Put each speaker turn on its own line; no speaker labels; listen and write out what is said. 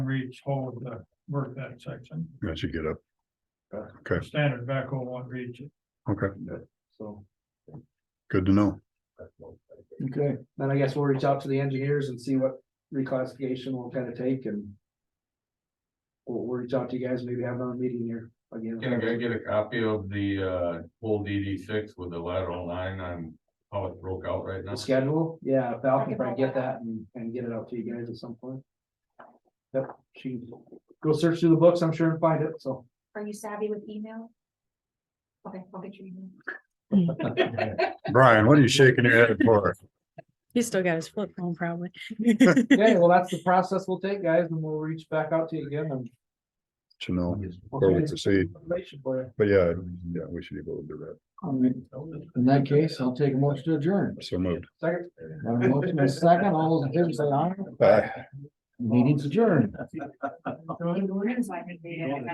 reach whole of the work that section.
I should get up. Okay.
Standard backhoe won't reach it.
Okay,
so.
good to know.
Okay, then I guess we'll reach out to the engineers and see what reclassification will kind of take and. We'll, we'll reach out to you guys, maybe have another meeting here
Can I
again.
get a copy of the uh whole DD six with the lateral line on how it broke out right now?
The schedule, yeah, if Val can try and get that and, and get it out to you guys at some point. Yep, she, go search through the books, I'm sure and find it, so.
Are you savvy with email? Okay, I'll get your email.
Brian, what are you shaking your head for?
He's still got his flip phone probably.
Okay, well, that's the process we'll take, guys, and we'll reach back out to you again and.
To know
we'll
where
get
we
this
proceed,
Information for you.
but yeah, yeah, we should be able to do
All right, in that case, I'll take a motion to adjourn.
that. So moved.
Second.
Got a motion and a second, all those in favor say aye.
Bye.
Meeting's adjourned.
We're gonna slide it.